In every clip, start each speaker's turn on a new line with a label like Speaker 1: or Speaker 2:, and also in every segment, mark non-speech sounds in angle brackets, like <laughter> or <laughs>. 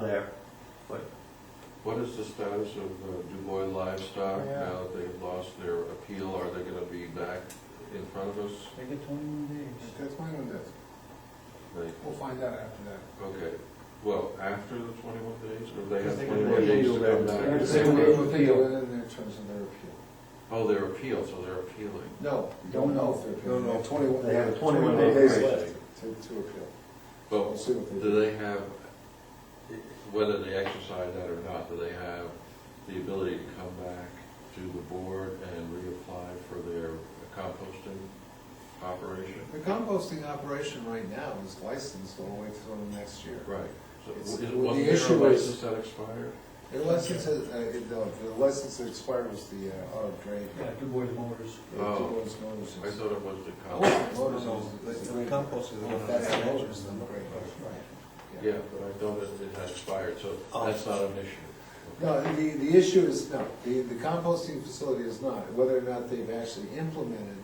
Speaker 1: there.
Speaker 2: What is the status of uh, Du Bois livestock
Speaker 3: Yeah.
Speaker 2: now that they've lost their appeal? Are they gonna be back in front of us?
Speaker 1: They get twenty-one days.
Speaker 3: That's my own desk.
Speaker 2: They-
Speaker 3: We'll find out after that.
Speaker 2: Okay, well, after the twenty-one days, or they
Speaker 1: Because
Speaker 2: have
Speaker 1: they
Speaker 2: twenty-one
Speaker 1: can
Speaker 2: days
Speaker 1: appeal
Speaker 2: to come
Speaker 1: that.
Speaker 2: back?
Speaker 1: They will appeal.
Speaker 3: And then in terms of their appeal.
Speaker 2: Oh, they're appealed, so they're appealing.
Speaker 3: No,
Speaker 1: you
Speaker 3: don't know if they're appealing.
Speaker 1: No, no.
Speaker 3: Twenty-one.
Speaker 1: They have
Speaker 2: 21
Speaker 3: days
Speaker 2: days.
Speaker 3: left to, to appeal. We'll
Speaker 2: But
Speaker 3: see what they do.
Speaker 2: do they have, whether they exercise that or not, do they have the ability to come back to the board and reapply for their composting operation?
Speaker 3: The composting operation right now is licensed all the way through next year.
Speaker 2: Right. So
Speaker 3: It's-
Speaker 2: is-
Speaker 3: the
Speaker 2: Wasn't there a
Speaker 3: issue is-
Speaker 2: license that expired?
Speaker 3: The license, has- uh, it- no, the license that expired was the, uh, oh, great.
Speaker 1: Yeah, Du Bois Motors.
Speaker 3: Yeah,
Speaker 2: Oh.
Speaker 3: Dubois Motors.
Speaker 2: I thought it was the
Speaker 4: Oh,
Speaker 3: Motors
Speaker 2: compost.
Speaker 3: is- is great.
Speaker 1: Compost is the one
Speaker 3: That's
Speaker 1: that I
Speaker 3: the motors,
Speaker 1: mentioned.
Speaker 3: the great, right.
Speaker 2: Yeah, but I thought it it had expired, so
Speaker 1: Oh.
Speaker 2: that's not an issue.
Speaker 3: No, the, the issue is, no, the, the composting facility is not, whether or not they've actually implemented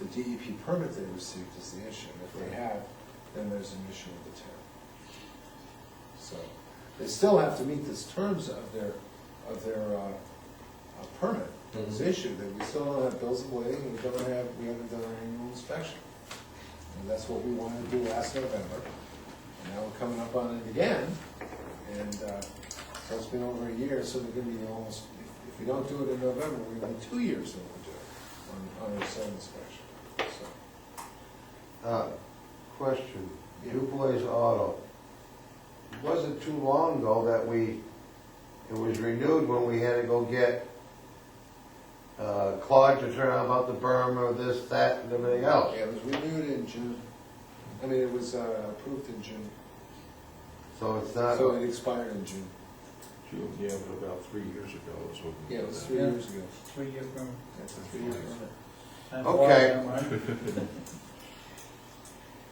Speaker 3: the DEP permit they received is the issue. If they have, then there's an issue with the town. So, they still have to meet the terms of their, of their, uh, uh, permit that was
Speaker 2: Mhm.
Speaker 3: issued, that we still don't have bills of lading, and we don't have, we haven't done our annual inspection. And that's what we wanted to do last November, and now we're coming up on it again, and, uh, so it's been over a year, so they're gonna be almost, if- if we don't do it in November, we're gonna be two years overdue on, on our site inspection, so.
Speaker 4: Uh, Question, DuBois Auto. Wasn't too long ago that we, it was renewed when we had to go get uh, Claude to turn on about the berm or this, that, and everything else.
Speaker 3: Yeah, it was renewed in June, I mean, it was, uh, approved in June,
Speaker 4: So it's
Speaker 3: so
Speaker 4: not,
Speaker 3: it expired in June,
Speaker 2: June, Yeah, but about three years ago is when. we
Speaker 3: yeah,
Speaker 2: did
Speaker 3: it was
Speaker 2: that.
Speaker 3: three
Speaker 1: Yeah.
Speaker 3: years ago.
Speaker 1: Three-year permit.
Speaker 3: That's a three-year permit.
Speaker 1: Time
Speaker 4: Okay.
Speaker 1: flies, huh, Mark?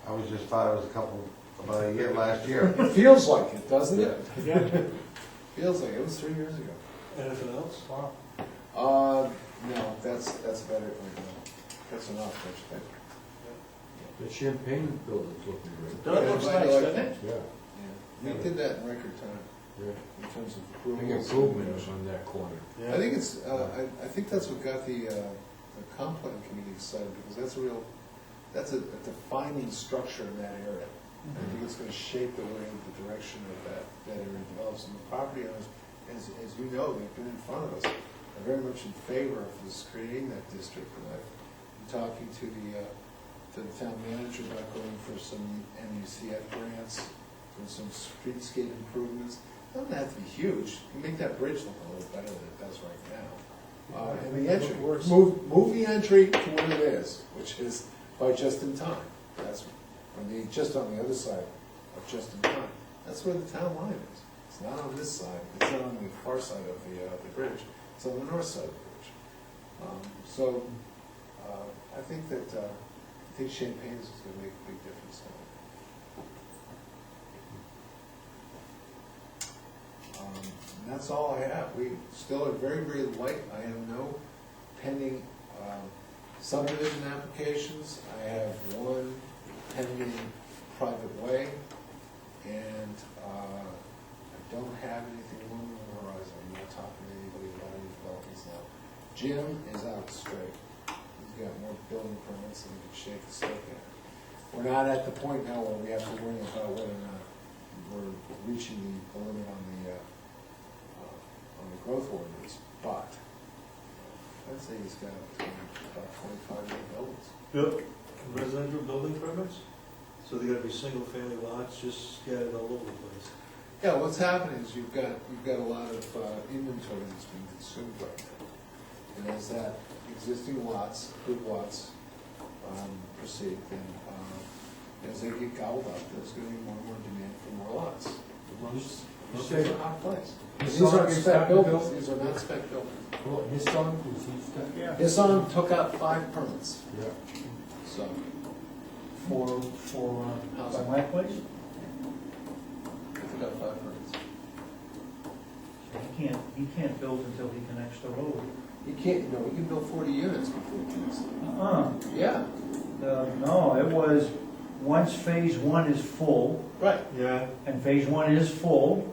Speaker 4: I was just thought it was a couple, about a year last year.
Speaker 3: It feels like it, doesn't it?
Speaker 1: Yeah.
Speaker 3: <laughs> Feels like it was three years ago.
Speaker 1: Anything else? Wow.
Speaker 3: Uh, no, that's, that's about it right now. That's enough, don't you think?
Speaker 5: The Champagne building's looking great.
Speaker 1: That looks
Speaker 3: Yeah,
Speaker 1: nice,
Speaker 3: I like
Speaker 1: doesn't it?
Speaker 5: Yeah.
Speaker 3: Yeah, we did that in record time
Speaker 5: yeah.
Speaker 3: in terms of
Speaker 5: Big
Speaker 3: approvals.
Speaker 5: improvement on that corner.
Speaker 3: I think it's, uh, I, I think that's what got the, uh, the comp plan committee excited, because that's a real, that's a a defining structure in that area. I think it's gonna shape the way, the direction of that, that area develops, and the property owners, as, as you know, they've been in front of us, are very much in favor of this, creating that district, and I've been talking to the, uh, to the town manager about going for some MUCF grants, for some streetscape improvements, doesn't have to be huge, you make that bridge look a little better than it does right now. Uh, and the entry, move, move the entry to what it is, which is by just in time, that's, on the, just on the other side of just in time, that's where the town line is. It's not on this side, it's not on the far side of the, uh, the bridge, it's on the north side of the bridge. Um, So, uh, I think that, uh, I think Champagne's is gonna make a big difference now. Um, And that's all I have, we still are very, very light, I have no pending um, subdivision applications, I have one pending private way, and uh, I don't have anything looming on the horizon, I'm not talking to anybody about any developments now. Jim is out straight, he's got more building permits than he can shake a stick at. We're not at the point now where we have to worry about whether or not we're reaching the limit on the, uh, uh, on the growth ordinance, but I'd say he's got about twenty-five year buildings.
Speaker 6: Built residential building permits? So they gotta be single-family lots, just scattered all over the place.
Speaker 3: Yeah, what's happening is you've got, you've got a lot of uh, inventory that's being consumed right now. And as that existing lots, good lots, um, proceed, then, uh, as they get gobbled up, there's gonna be more and more demand for more lots. It's just a hot place. And These aren't spec buildings, these are not spec buildings.
Speaker 5: Well, his son, was he stuck?
Speaker 1: Yeah.
Speaker 3: Hisson took out five permits,
Speaker 5: Yeah.
Speaker 3: so,
Speaker 1: For, for, uh,
Speaker 3: How's
Speaker 1: by
Speaker 3: it?
Speaker 1: my place,
Speaker 3: he took out five permits.
Speaker 1: he can't, he can't build until he connects the road.
Speaker 3: You can't, no, you can build forty units before it connects.
Speaker 1: Uh-uh,
Speaker 3: Yeah,
Speaker 1: The- no, it was, once phase one is full,
Speaker 3: right.
Speaker 6: Yeah.
Speaker 1: and phase one is full,